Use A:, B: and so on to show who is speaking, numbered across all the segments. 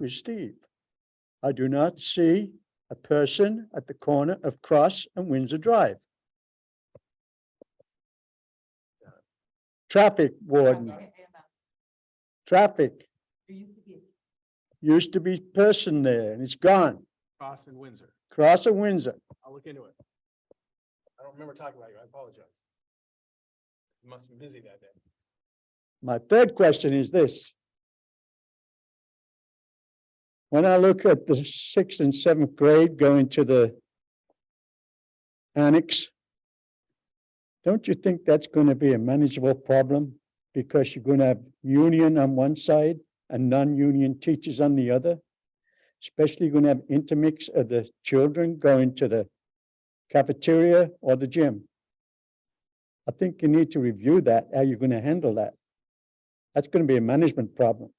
A: with Steve. I do not see a person at the corner of Cross and Windsor Drive. Traffic warden, traffic used to be person there and it's gone.
B: Cross and Windsor.
A: Cross and Windsor.
B: I'll look into it. I don't remember talking about you. I apologize. You Must have been busy that day.
A: My third question is this. When I look at the sixth and seventh grade going to the annex, don't you think that's going to be a manageable problem? Because you're going to have union on one side and non-union teachers on the other? Especially you're going to have intermix of the children going to the cafeteria or the gym. I think you need to review that, how you're going to handle that. That's going to be a management problem.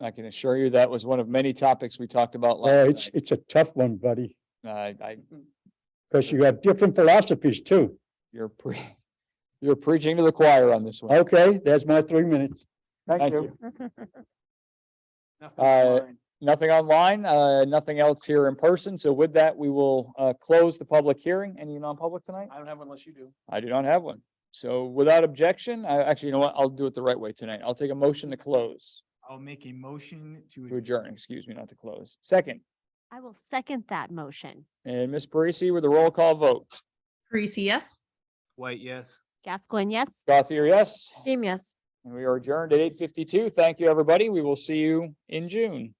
C: I can assure you that was one of many topics we talked about. last
A: Oh, it's, it's a tough one, buddy,
C: night. Uh, I,
A: because you have different philosophies too.
C: you're pre, you're preaching to the choir on this one.
A: Okay, there's my three minutes.
C: Thank you.
B: Nothing
C: Uh,
B: online.
C: Nothing online, uh, nothing else here in person. So with that, we will, uh, close the public hearing. Any non-public tonight?
B: I don't have one unless you do.
C: I do not have one. So without objection, I actually, you know what? I'll do it the right way tonight. I'll take a motion to close,
B: I'll make a motion
C: to adjourn, excuse me, not to close. Second,
D: I will second that motion.
C: and Ms. Parisi with a roll call vote.
E: Parisi, yes?
B: White, yes.
D: Gascoigne, yes?
C: Gothier, yes?
D: Beam, yes.
C: And we are adjourned at eight fifty-two. Thank you, everybody. We will see you in June.